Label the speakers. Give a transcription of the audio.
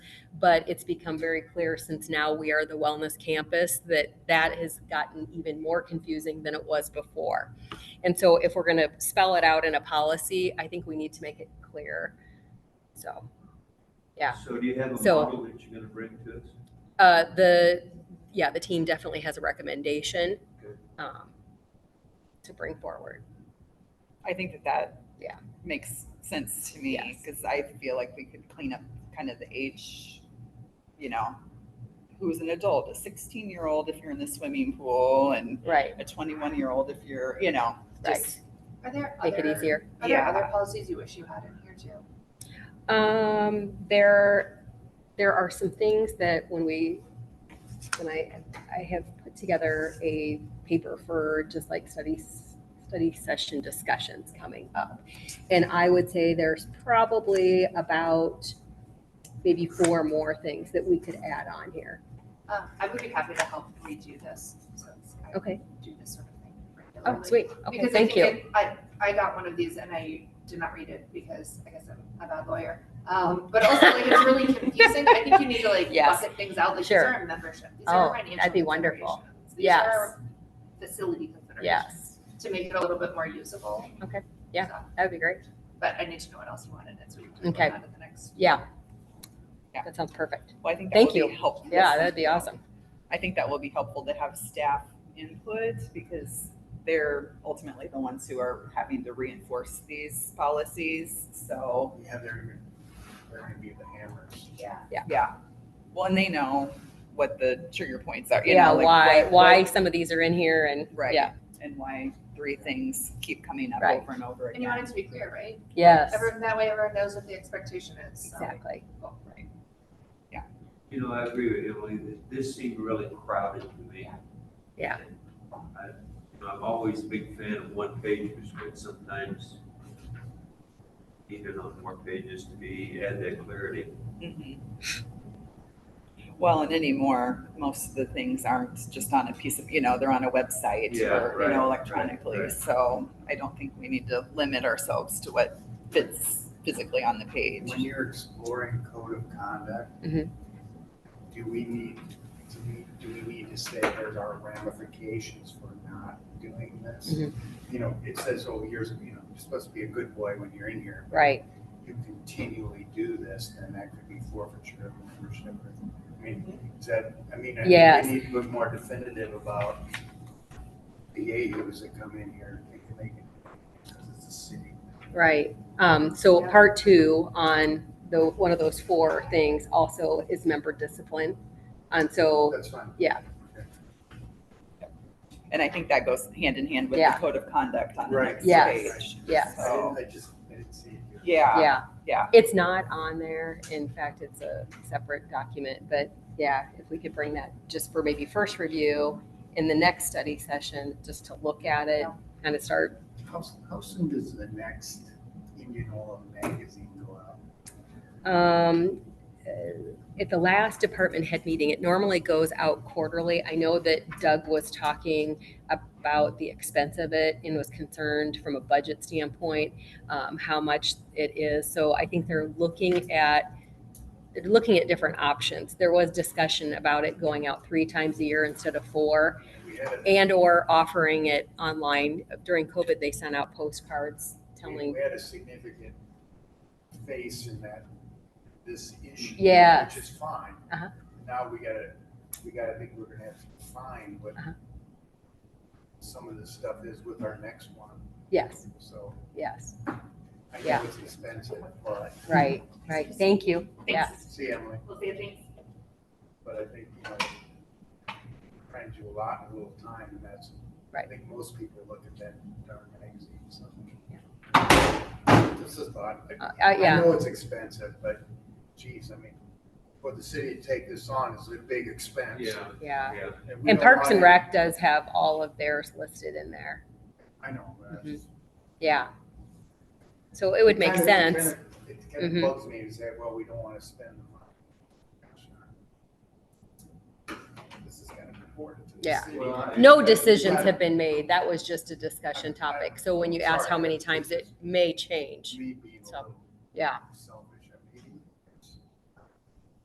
Speaker 1: but it's become very clear since now we are the wellness campus that that has gotten even more confusing than it was before. And so if we're going to spell it out in a policy, I think we need to make it clear. So, yeah.
Speaker 2: So do you have a
Speaker 1: So-
Speaker 2: model that you're gonna bring to us?
Speaker 1: uh, the, yeah, the team definitely has a recommendation,
Speaker 2: Good.
Speaker 1: um, to bring forward.
Speaker 3: I think that that
Speaker 1: Yeah.
Speaker 3: makes sense to me
Speaker 1: Yes.
Speaker 3: because I feel like we could clean up kind of the age, you know, who's an adult, a 16 year old if you're in the swimming pool and
Speaker 1: Right.
Speaker 3: a 21 year old if you're, you know, just
Speaker 4: Are there
Speaker 1: Make it
Speaker 4: other-
Speaker 1: easier.
Speaker 4: Are there
Speaker 3: Yeah.
Speaker 4: other policies you wish you had in here too?
Speaker 1: Um, there, there are some things that when we, when I, I have put together a paper for just like studies, study session discussions coming up. And I would say there's probably about maybe four more things that we could add on here.
Speaker 4: Um, I would be happy to help redo this since I
Speaker 1: Okay.
Speaker 4: do this sort of thing regularly.
Speaker 1: Oh, sweet. Okay,
Speaker 4: Because I
Speaker 1: thank
Speaker 4: think
Speaker 1: you.
Speaker 4: it- I, I got one of these and I did not read it because I guess I'm a bad lawyer. Um, but also like it's really confusing. I think you need to like
Speaker 3: Yes.
Speaker 4: bucket things out, like these
Speaker 1: Sure.
Speaker 4: are our membership, these are
Speaker 1: Oh,
Speaker 4: our financial
Speaker 1: that'd be wonderful.
Speaker 4: considerations,
Speaker 1: Yes.
Speaker 4: These are our facility considerations,
Speaker 1: Yes,
Speaker 4: to make it a little bit more usable.
Speaker 1: Okay. Yeah.
Speaker 4: So,
Speaker 1: that'd be great.
Speaker 4: But I need to know what else you want in it, so we can talk
Speaker 1: Okay.
Speaker 4: about that at the next.
Speaker 1: Yeah.
Speaker 3: Yeah.
Speaker 1: That sounds perfect.
Speaker 3: well, I think that
Speaker 1: Thank
Speaker 3: will
Speaker 1: you.
Speaker 3: be helpful.
Speaker 1: Yeah, that'd be awesome.
Speaker 3: I think that will be helpful to have staff input because they're ultimately the ones who are having to reinforce these policies. So,
Speaker 5: Yeah, they're, they're gonna be the hammers.
Speaker 4: Yeah.
Speaker 3: yeah. Well, and they know what the trigger points are, you
Speaker 1: Yeah,
Speaker 3: know, like
Speaker 1: why,
Speaker 3: what-
Speaker 1: why
Speaker 3: what-
Speaker 1: some of these are in here and,
Speaker 3: Right.
Speaker 1: yeah,
Speaker 3: And why three things keep coming up
Speaker 1: Right.
Speaker 3: over and over
Speaker 4: And you want
Speaker 3: again.
Speaker 4: it to be clear, right?
Speaker 1: yes,
Speaker 4: Everyone, that way everyone knows what the expectation is. so.
Speaker 1: exactly.
Speaker 3: Right.
Speaker 2: You know, I agree with Emily, that this seemed really crowded to me.
Speaker 1: Yeah.
Speaker 2: I- you know, I'm always a big fan of one pages, but sometimes even on more pages to be, add that clarity.
Speaker 3: Mhm. Well, and anymore, most of the things aren't just on a piece of, you know, they're on a website
Speaker 2: Yeah,
Speaker 3: or, you
Speaker 2: right,
Speaker 3: know,
Speaker 2: right,
Speaker 3: electronically.
Speaker 2: right.
Speaker 3: So I don't think we need to limit ourselves to what fits physically on the page.
Speaker 5: When you're exploring code of conduct,
Speaker 1: Mhm.
Speaker 5: do we need, do we, do we need to say there's our ramifications for not doing this?
Speaker 1: Mhm.
Speaker 5: You know, it says, oh, here's, you know, you're supposed to be a good boy when you're in here.
Speaker 1: Right,
Speaker 5: You continually do this, then that could be forfeiture of membership. or- I mean, is that, I mean, I
Speaker 1: Yes.
Speaker 5: think we need to be more definitive about the AUs that come in here. They can make it, because it's a city.
Speaker 1: right. Um, so
Speaker 4: Yeah.
Speaker 1: part two on the, one of those four things also is member discipline. And so,
Speaker 5: That's fine.
Speaker 1: Yeah.
Speaker 3: And I think that goes hand in hand with
Speaker 1: Yeah.
Speaker 3: the code of conduct on the
Speaker 5: Right.
Speaker 3: next
Speaker 1: Yes.
Speaker 3: page.
Speaker 1: yes,
Speaker 5: I didn't, I just, I didn't see it here.
Speaker 3: Yeah,
Speaker 1: Oh. yeah.
Speaker 3: Ah, yeah.
Speaker 1: It's not on there. In fact, it's a separate document, but yeah, if we could bring that just for maybe first review in the next study session, just to look at it, kind of start
Speaker 5: How, how soon does the next Indian Oil magazine go out?
Speaker 1: Um, uh, At the last department head meeting, it normally goes out quarterly. I know that Doug was talking about the expense of it and was concerned from a budget standpoint, um, how much it is. So I think they're looking at, they're looking at different options. There was discussion about it going out three times a year instead of four
Speaker 5: We had a,
Speaker 1: and/or offering it online. During COVID, they sent out postcards telling,
Speaker 5: we had a significant face in that, this issue.
Speaker 1: Yes.
Speaker 5: Which is fine.
Speaker 1: Uh-huh.
Speaker 5: Now we gotta, we gotta think we're gonna have to find what
Speaker 1: Uh-huh.
Speaker 5: some of this stuff is with our next one,
Speaker 1: yes,
Speaker 5: so
Speaker 1: yes,
Speaker 5: I know
Speaker 1: Yeah.
Speaker 5: it's expensive, but,
Speaker 1: right, right. Thank you. Yeah.
Speaker 5: see, Emily,
Speaker 4: We'll see, thanks.
Speaker 5: but I think, you know, trying to do a lot in a little time, and that's, I
Speaker 1: Right.
Speaker 5: think most people look at that darn magazine, so. This is thought.
Speaker 1: Uh, uh,
Speaker 5: I
Speaker 1: yeah,
Speaker 5: know it's expensive, but geez, I mean, for the city to take this on is a big expense.
Speaker 1: yeah.
Speaker 2: yeah.
Speaker 5: we
Speaker 1: And
Speaker 5: don't
Speaker 1: Parks and
Speaker 5: want it.
Speaker 1: Rec does have all of theirs listed in there.
Speaker 5: I know. but
Speaker 1: Mhm. Yeah. So it would make
Speaker 5: kinda- it
Speaker 1: sense.
Speaker 5: kinda- It kind
Speaker 1: Mhm.
Speaker 5: of bugs me to say, well, we don't want to spend the money. uh, This is kind of important to the
Speaker 1: Yeah.
Speaker 5: city.
Speaker 2: Well, I-
Speaker 1: No decisions
Speaker 5: Right.
Speaker 1: have been made. That was just a discussion topic. So when you asked how many times it may change,
Speaker 5: Me being a
Speaker 1: So-
Speaker 5: little
Speaker 1: yeah,
Speaker 5: selfish